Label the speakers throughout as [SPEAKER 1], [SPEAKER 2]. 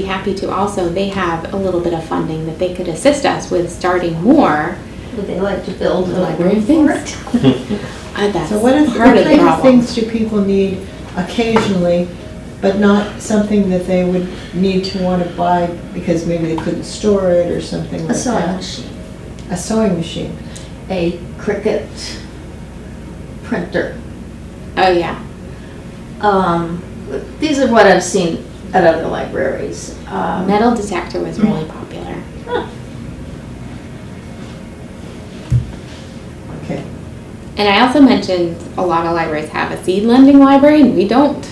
[SPEAKER 1] Be happy to also, they have a little bit of funding that they could assist us with starting more.
[SPEAKER 2] Would they like to build a library
[SPEAKER 3] Library
[SPEAKER 2] for
[SPEAKER 3] things.
[SPEAKER 2] it?
[SPEAKER 1] Uh, that's
[SPEAKER 3] So what is,
[SPEAKER 1] part
[SPEAKER 3] what
[SPEAKER 1] of the
[SPEAKER 3] kind of
[SPEAKER 1] problem.
[SPEAKER 3] things do people need occasionally, but not something that they would need to want to buy because maybe they couldn't store it or something
[SPEAKER 2] A
[SPEAKER 3] like
[SPEAKER 2] sewing
[SPEAKER 3] that?
[SPEAKER 2] machine,
[SPEAKER 3] A sewing machine.
[SPEAKER 2] a Cricut printer.
[SPEAKER 1] Oh, yeah.
[SPEAKER 2] Um, These are what I've seen at other libraries. Um,
[SPEAKER 1] Metal detector was really popular.
[SPEAKER 3] Okay.
[SPEAKER 1] And I also mentioned a lot of libraries have a seed lending library and we don't.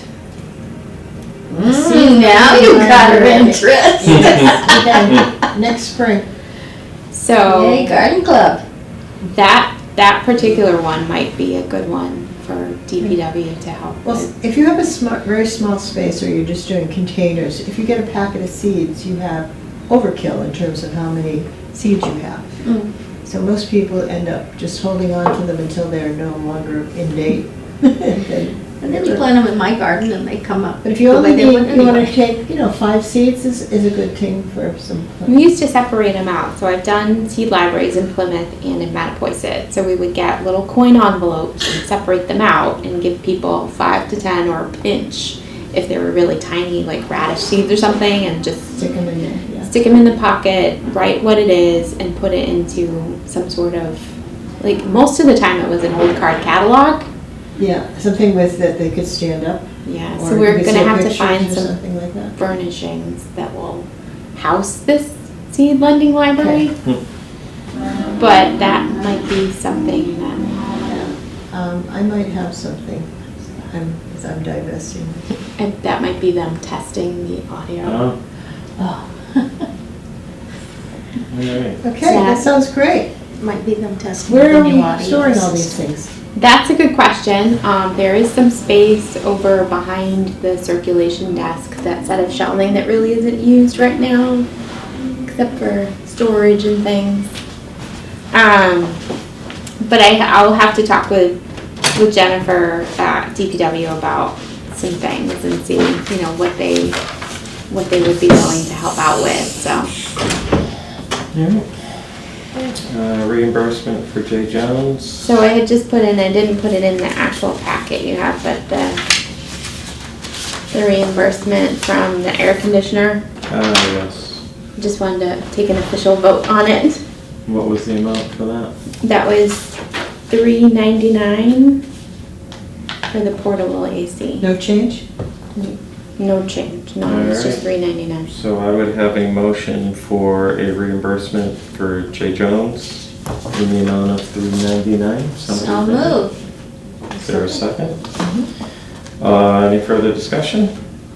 [SPEAKER 2] See, now you got her interest.
[SPEAKER 3] Okay, Next spring.
[SPEAKER 1] So
[SPEAKER 2] Yay, garden club.
[SPEAKER 1] that, that particular one might be a good one for DPW to help
[SPEAKER 3] Well,
[SPEAKER 1] with.
[SPEAKER 3] if you have a smart, very small space or you're just doing containers, if you get a packet of seeds, you have overkill in terms of how many seeds you have.
[SPEAKER 2] Mm.
[SPEAKER 3] So most people end up just holding on to them until they're no longer in date.
[SPEAKER 2] And
[SPEAKER 3] And then-
[SPEAKER 2] then we plant them in my garden and they come up.
[SPEAKER 3] But if you
[SPEAKER 2] the
[SPEAKER 3] only
[SPEAKER 2] way they
[SPEAKER 3] need,
[SPEAKER 2] would
[SPEAKER 3] you want to
[SPEAKER 2] anyway.
[SPEAKER 3] take, you know, five seeds is, is a good thing for some.
[SPEAKER 1] We used to separate them out, so I've done seed libraries in Plymouth and in Mattapoisett. So we would get little coin envelopes and separate them out and give people five to ten or a pinch if they were really tiny, like radish seeds or something, and just
[SPEAKER 3] Stick them in there, yeah.
[SPEAKER 1] stick them in the pocket, write what it is, and put it into some sort of like most of the time it was an old card catalog.
[SPEAKER 3] Yeah, something with, that they could stand up.
[SPEAKER 1] Yeah,
[SPEAKER 3] or
[SPEAKER 1] so
[SPEAKER 3] you
[SPEAKER 1] we're
[SPEAKER 3] could
[SPEAKER 1] gonna
[SPEAKER 3] see
[SPEAKER 1] have to
[SPEAKER 3] pictures
[SPEAKER 1] find
[SPEAKER 3] or
[SPEAKER 1] some
[SPEAKER 3] Something like that.
[SPEAKER 1] furnishings that will house this seed lending library. But that might be something that,
[SPEAKER 3] Um, I might have something. I'm, 'cause I'm divesting.
[SPEAKER 1] and that might be them testing the audio.
[SPEAKER 4] Oh, all right.
[SPEAKER 3] Okay, that
[SPEAKER 1] Yeah.
[SPEAKER 3] sounds great.
[SPEAKER 2] Might be them testing.
[SPEAKER 3] Where
[SPEAKER 2] the
[SPEAKER 3] are
[SPEAKER 2] new
[SPEAKER 3] we
[SPEAKER 2] audience.
[SPEAKER 3] storing all these things?
[SPEAKER 1] That's a good question. Um, there is some space over behind the circulation desk, that set of shelving that really isn't used right now, except for storage and things. Um, but I, I'll have to talk with, with Jennifer at DPW about some things and see, you know, what they, what they would be willing to help out with, so.
[SPEAKER 4] All right. Uh, reimbursement for Jay Jones.
[SPEAKER 1] So I had just put in, I didn't put it in the actual packet you have, but the, the reimbursement from the air conditioner,
[SPEAKER 4] Uh, yes.
[SPEAKER 1] just wanted to take an official vote on it.
[SPEAKER 4] What was the amount for that?
[SPEAKER 1] That was three ninety-nine for the portable AC.
[SPEAKER 3] No change?
[SPEAKER 1] No change, no, it's just three ninety-nine.
[SPEAKER 4] So I would have a motion for a reimbursement for Jay Jones in the amount of three ninety-nine.
[SPEAKER 2] So move.
[SPEAKER 4] Is there a second? Uh, any further discussion?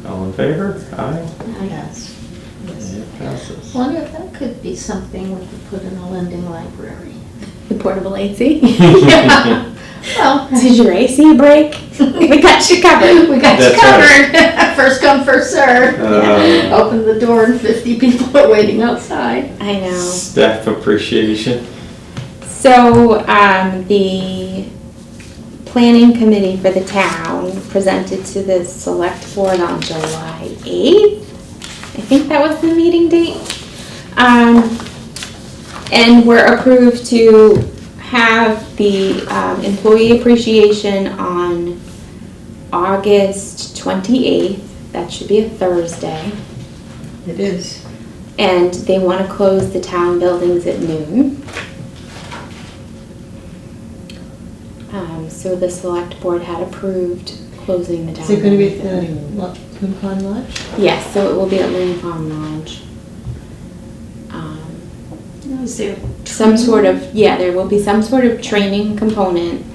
[SPEAKER 4] All in favor? Aye.
[SPEAKER 3] Yes. Yes.
[SPEAKER 4] It passes. Uh,
[SPEAKER 2] Wonder if that could be something we could put in a lending library.
[SPEAKER 1] The portable AC?
[SPEAKER 2] Yeah. Well,
[SPEAKER 1] Did your AC break? We got you covered.
[SPEAKER 2] we got you
[SPEAKER 4] That's
[SPEAKER 2] covered. First come, first served.
[SPEAKER 4] Uh,
[SPEAKER 2] Open the door and fifty people are waiting outside.
[SPEAKER 1] I know.
[SPEAKER 4] Staff appreciation.
[SPEAKER 1] So, um, the planning committee for the town presented to the select board on July eighth. I think that was the meeting date. Um, and were approved to have the, um, employee appreciation on August twenty-eighth. That should be a Thursday.
[SPEAKER 3] It is.
[SPEAKER 1] And they wanna close the town buildings at noon. Um, so the select board had approved closing the town.
[SPEAKER 3] Is it gonna be
[SPEAKER 1] buildings
[SPEAKER 3] at
[SPEAKER 1] at
[SPEAKER 3] the
[SPEAKER 1] noon.
[SPEAKER 3] Lo- Coon Pond Lodge?
[SPEAKER 1] Yes, so it will be at Loon Farm Lodge. Um, Some sort of, yeah, there will be some sort of training component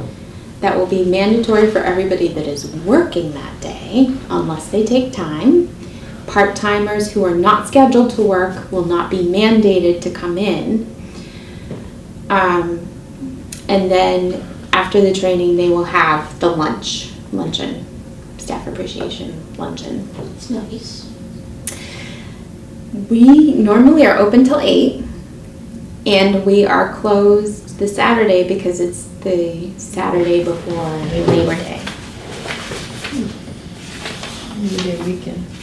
[SPEAKER 1] that will be mandatory for everybody that is working that day, unless they take time. Part-timers who are not scheduled to work will not be mandated to come in. Um, and then after the training, they will have the lunch, luncheon, staff appreciation luncheon.
[SPEAKER 2] It's nice.
[SPEAKER 1] We normally are open till eight, and we are closed the Saturday because it's the Saturday before Labor Day.
[SPEAKER 3] Maybe a weekend.